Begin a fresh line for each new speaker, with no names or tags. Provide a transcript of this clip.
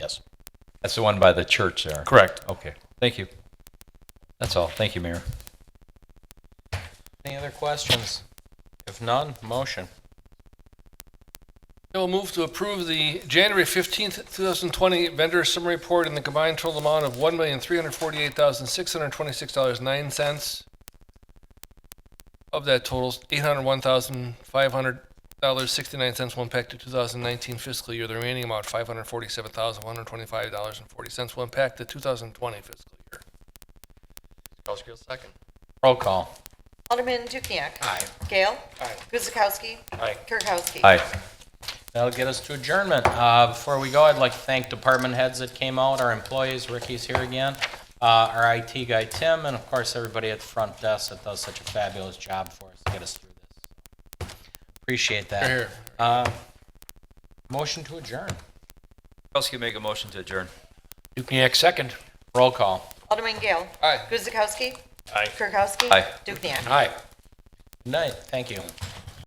Yes. That's the one by the church there.
Correct.
Okay, thank you. That's all. Thank you, Mayor.
Any other questions? If none, motion.
I will move to approve the January 15th, 2020 vendor summary report in the combined total amount of $1,348,626.09. Of that total, $801,500.69 will impact the 2019 fiscal year. The remaining amount, $547,125.40, will impact the 2020 fiscal year. second.
Roll call.
Alderman Dukniak.
Aye.
Gale.
Aye.
Guzekowski.
Aye.
Kirkowski.
Aye.
That'll get us to adjournment. Uh, Before we go, I'd like to thank department heads that came out, our employees, Ricky's here again, uh, our IT guy Tim, and of course, everybody at the front desk that does such a fabulous job for us to get us through this. Appreciate that.
Here, here.
Uh, Motion to adjourn.
Kowski make a motion to adjourn.
Dukniak, second.
Roll call.
Alderman Gale.
Aye.
Guzekowski.
Aye.
Kirkowski.
Aye.
Dukniak.
Aye.
Good night. Thank you.